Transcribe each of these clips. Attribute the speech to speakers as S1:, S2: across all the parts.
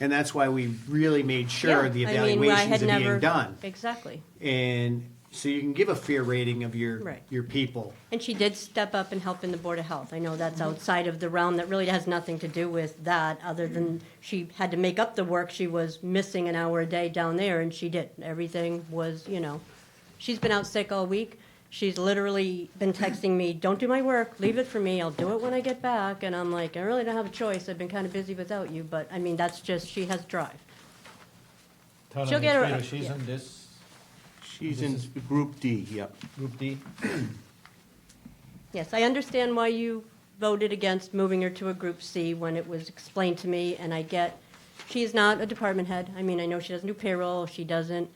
S1: And that's why we really made sure
S2: Yeah,
S1: the
S2: I mean, where I
S1: evaluations
S2: had
S1: are
S2: never-
S1: being done.
S2: Exactly.
S1: And so you can give a fair rating of your,
S2: Right.
S1: your people.
S2: And she did step up and help in the Board of Health. I know that's
S1: Mm-hmm.
S2: outside of the realm, that really has nothing to do with that, other than she had to make up the work. She was missing an hour a day down there, and she did. Everything was, you know, she's been out sick all week. She's literally been texting me, don't do my work, leave it for me, I'll do it when I get back. And I'm like, I really don't have a choice, I've been kind of busy without you, but, I mean, that's just, she has drive.
S3: Town
S2: She'll get her-
S3: administrator, she's
S2: yeah.
S3: in this
S4: She's in Group D, yep.
S3: group D.
S2: Yes, I understand why you voted against moving her to a Group C when it was explained to me, and I get, she is not a department head. I mean, I know she doesn't do payroll, she doesn't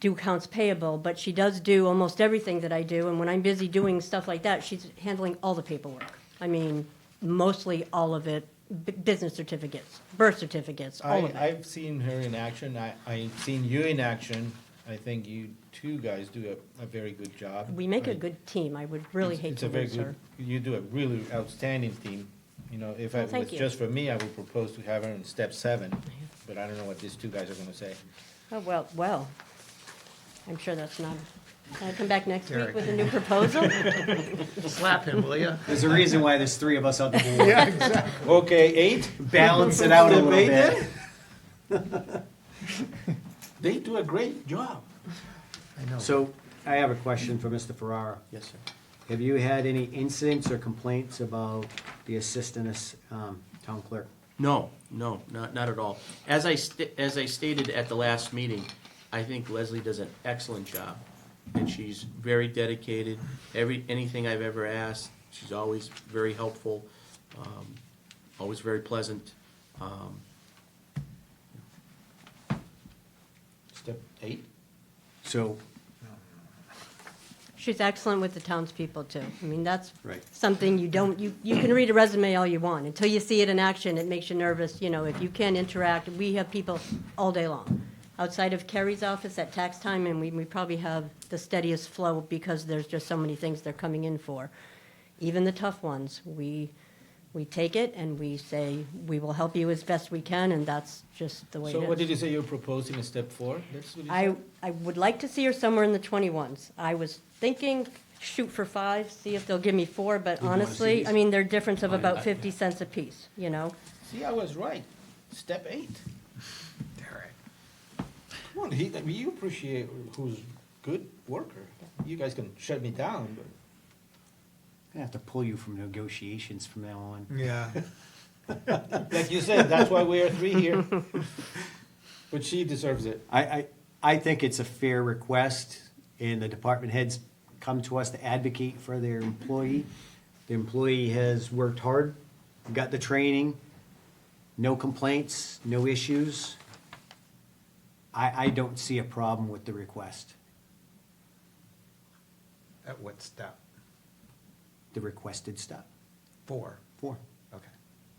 S2: do accounts payable, but she does do almost everything that I do, and when I'm busy doing stuff like that, she's handling all the paperwork. I mean, mostly all of it, b- business certificates, birth certificates, all of
S3: I,
S2: it.
S3: I've seen her in action, I, I've seen you in action. I think you two guys do a, a very good job.
S2: We make a
S3: I-
S2: good team, I would really
S3: it's-
S2: hate
S3: it's
S2: to
S3: a very
S2: lose
S3: good-
S2: her.
S3: You do a really outstanding team. You know, if
S2: Well,
S3: it
S2: thank
S3: was
S2: you.
S3: just for me, I would propose to have her in step seven, but I don't know what these two guys are gonna say.
S2: Oh, well, well, I'm sure that's not, can I come back next week with a new proposal?
S5: Slap him, will you?
S1: There's a reason why there's three of us on the board.
S3: Okay, eight?
S1: Balance it out a little
S3: Debate
S1: bit.
S5: They do a great job. I know.
S1: So I have a question for Mr. Ferrara.
S5: Yes, sir.
S1: Have you had any incidents or complaints about the assistant as- um, town clerk?
S5: No, no, not, not at all. As I, st- as I stated at the last meeting, I think Leslie does an excellent job. And she's very dedicated. Every, anything I've ever asked, she's always very helpful, um, always very pleasant. Um,
S3: Step eight?
S1: So,
S2: She's excellent with the townspeople, too. I mean, that's
S1: Right.
S2: something you don't, you, you can read a resume all you want. Until you see it in action, it makes you nervous, you know, if you can interact. We have people all day long. Outside of Kerry's office at tax time, and we, we probably have the steadiest flow because there's just so many things they're coming in for. Even the tough ones, we, we take it and we say, we will help you as best we can, and that's just the way it is.
S3: So what did you say you're proposing in step four? That's what you
S2: I,
S3: said?
S2: I would like to see her somewhere in the 21s. I was thinking, shoot for five, see if they'll give me four, but honestly, I mean, they're a difference of about 50 cents apiece, you know?
S3: See, I was right. Step eight.
S5: Derek.
S3: Come on, he, I mean, you appreciate who's good worker. You guys can shut me down, but.
S1: I'm gonna have to pull you from negotiations from now on.
S6: Yeah.
S3: Like you said, that's why we are three here. But she deserves it.
S1: I, I, I think it's a fair request, and the department heads come to us to advocate for their employee. The employee has worked hard, got the training, no complaints, no issues. I, I don't see a problem with the request,
S6: At what step?
S1: the requested step.
S6: Four.
S1: Four.
S6: Okay.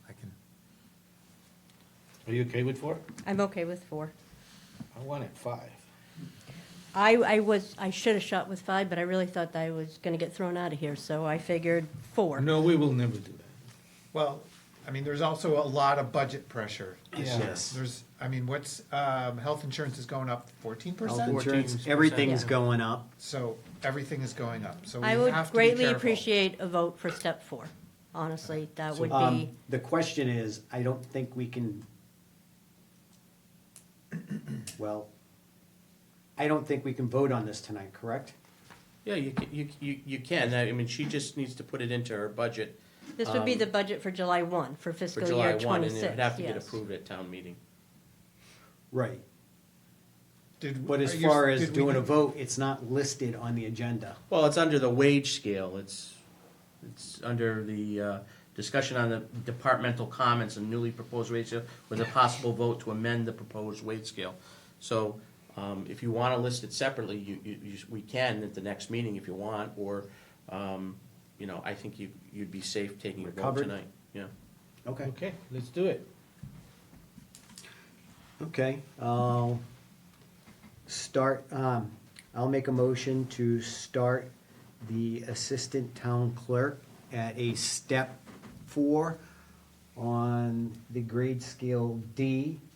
S6: I can.
S3: Are you okay with four?
S2: I'm okay with four.
S3: I wanted five.
S2: I, I was, I should have shot with five, but I really thought that I was going to get thrown out of here, so I figured four.
S3: No, we will never do that.
S6: Well, I mean, there's also a lot of budget pressure this
S3: Yeah.
S6: year.
S1: Yes.
S6: There's, I mean, what's, um, health insurance is going up fourteen
S1: Health
S6: percent?
S1: insurance,
S5: 14%.
S1: everything's
S2: Yeah.
S1: going up.
S6: So everything is going up, so we
S2: I
S6: have to be
S2: would greatly
S6: careful.
S2: appreciate a vote for step four. Honestly, that would
S1: Um,
S2: be,
S1: The question is, I don't think we can, well, I don't think we can vote on this tonight, correct?
S5: Yeah, you, ca- you, you, you can. I mean, she just needs to put it into her budget
S2: this would be the budget for July 1, for
S5: for
S2: fiscal
S5: July
S2: year
S5: one,
S2: 26.
S5: and it would have to get
S2: yes.
S5: approved at town meeting.
S1: Right.
S6: Did-
S1: But as
S6: are you-
S1: far as
S6: did we-
S1: doing a vote, it's not listed on the agenda.
S5: Well, it's under the wage scale. It's, it's under the uh, discussion on the departmental comments and newly proposed wage scale with a possible vote to amend the proposed wage scale. So um, if you want to list it separately, you, you, you- we can at the next meeting if you want, or, um, you know, I think you, you'd be safe taking a
S1: We're
S5: vote
S1: covered.
S5: tonight. Yeah.
S1: Okay.
S3: Okay, let's do it.
S1: Okay, I'll start, um, I'll make a motion to start the assistant town clerk at a step four on the grade scale D